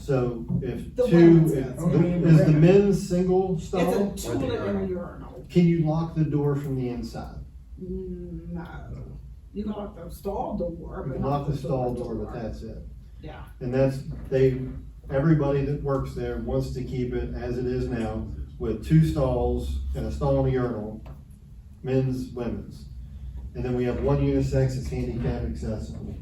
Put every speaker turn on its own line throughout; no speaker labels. So if
The
two,
women's
if-
one.
is the men's single stall?
It's a toilet and a urinal.
Can you lock the door from the inside?
Mm, No, you can lock the stall
You
door, but
can
not
lock the
the
stall
toilet
door, but
door.
that's it.
Yeah.
And that's, they, everybody that works there wants to keep it as it is now with two stalls and a stall and a urinal, men's, women's. And then we have one unisex that's handicap accessible.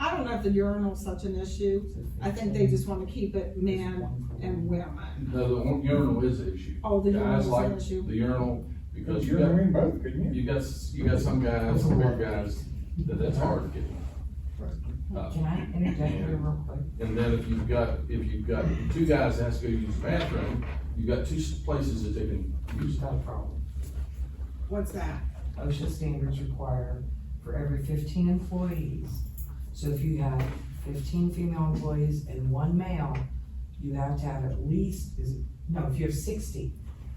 I don't know if the urinal's such an issue. I think they just wanna keep it men and women.
No, the one- urinal is an issue.
Oh, the
Guys
urinal's an
like
issue.
the urinal because you
You're
got,
in both, couldn't you?
you got, s- you got some guys, some big guys, that that's hard to get. Uh,
Can I interject here real quick?
And then if you've got, if you've got two guys that has to go use the bathroom, you've got two s- places that they can use.
It's not a problem.
What's that?
OSHA standards require for every fifteen employees. So if you have fifteen female employees and one male, you have to have at least, is, no, if you have sixty,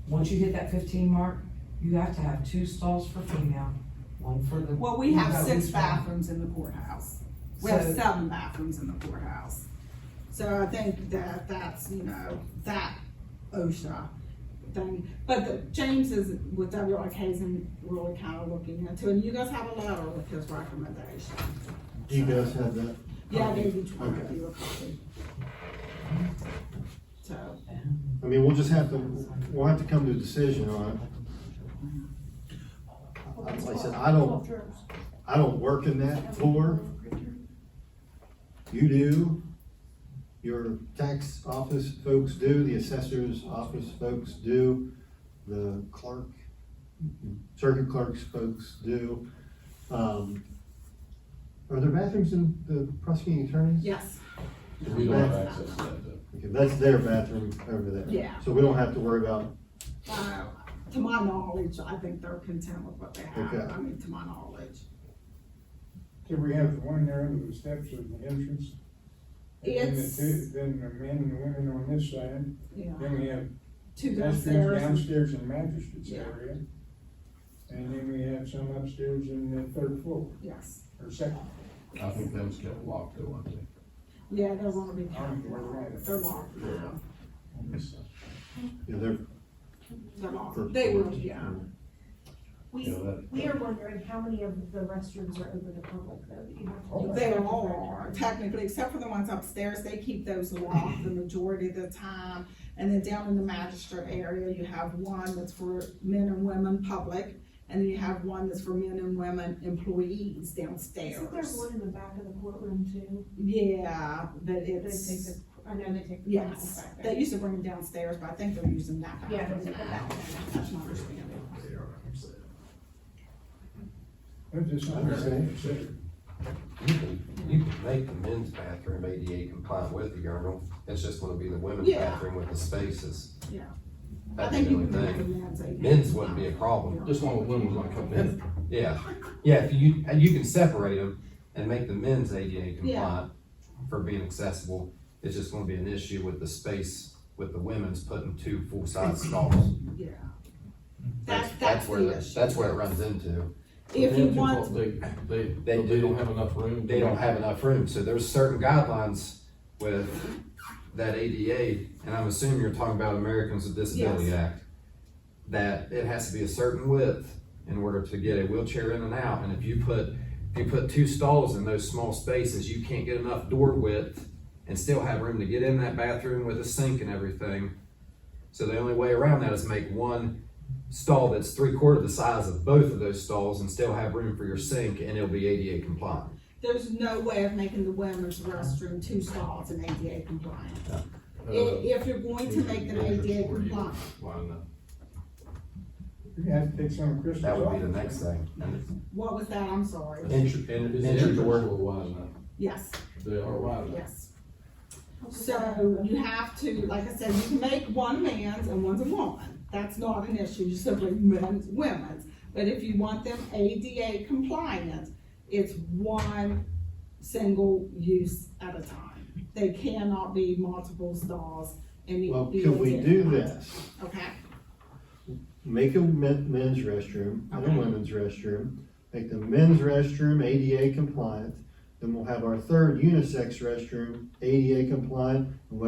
once you hit that fifteen mark, you have to have two stalls for female, one for the.
Well, we have six
baths.
bathrooms in the courthouse. We have
So-
seven bathrooms in the courthouse. So I think that that's, you know, that OSHA thing. But the- James is, with WRK, is really kind of looking into, it. and you guys have a letter with his recommendation.
Do you guys have that?
Yeah, I gave each one of you a copy. So,
I mean, we'll just have to, we'll have to come to a decision on it. Uh, Like I said, I don't, I don't work in that floor. You do. Your tax office folks do, the assessor's office folks do, the clerk, circuit clerk's folks do. Um, Are there bathrooms in the prosecuting attorney's?
yes,
We don't have access to that though.
Okay, that's their bathroom over there.
Yeah.
So we don't have to worry about,
uh, to my knowledge, I think they're content with what they have.
Okay.
I mean, to my knowledge.
Did we have the one there under the steps of the entrance? And then the
It's-
two- Then the men and women on this side,
Yeah.
then we have
Two
restrooms
downstairs. and-
downstairs in magistrates
Yeah.
area. And then we have some upstairs in the third floor,
Yes.
or second.
I think that was kept locked though, I think.
Yeah, they're gonna be
I don't know where we're
counted.
at.
They're locked now.
you know, their
They're locked.
First
They
floor.
will, yeah.
Yeah,
We,
that-
we are wondering how many of the restrooms are open to public though? that you have to-
They all are technically, except for the ones upstairs. They keep those locked the majority of the time. And then down in the magistrate area, you have one that's for men and women public. And then you have one that's for men and women employees
Isn't there
downstairs.
one in the back of the courtroom too?
Yeah, but
They take
it's,
the, I know they take. the
yes,
back
they
there.
used to bring them downstairs, but I think they're using that
Yeah,
bathroom
they-
now. That's my understanding.
But this
I understand.
considered.
You can, you can make the men's bathroom ADA compliant with the urinal, it's just gonna be the women's
Yeah.
bathroom with the spaces.
Yeah. I
That's
think
the
you
only
can make the
thing,
men's. a-
men's wouldn't be a problem,
This one with women was like a minute.
yeah, yeah, if you, and you can separate them and make the men's ADA compliant for being accessible, it's just gonna be an issue with the space, with the women's putting two full-size stalls.
Yeah.
That's,
That's,
that's where,
the
the-
issue.
that's where it runs into,
If you
They-
want,
They, they, they
They
don't
do.
have enough room.
they don't have enough room, so there's certain guidelines with that ADA, and I'm assuming you're talking about Americans with Disability
Yes.
Act, that it has to be a certain width in order to get a wheelchair in and out, and if you put, if you put two stalls in those small spaces, you can't get enough door width and still have room to get in that bathroom with a sink and everything. So the only way around that is make one stall that's three quarter the size of both of those stalls and still have room for your sink, and it'll be ADA compliant.
there's no way of making the women's restroom two stalls and ADA compliant.
Uh,
I- If, you're going to make them ADA compliant,
Line up.
We're gonna have to take some of Chris's
That would be the
office.
next thing.
what was that? I'm sorry.
Entry,
Is
en-
the
entry
entrance
door,
door wide enough?
Yes,
They are wide enough.
yes. So you have to, like I said, you can make one man's and one's a woman. That's not an issue, you simply men's, women's. But if you want them ADA compliant, it's one single use at a time. They cannot be multiple stalls and. it
Well,
be
can we
different.
do this?
Okay,
Make a men- men's restroom and a
Okay.
women's restroom, make the men's restroom ADA compliant, then we'll have our third unisex restroom ADA compliant, and we'll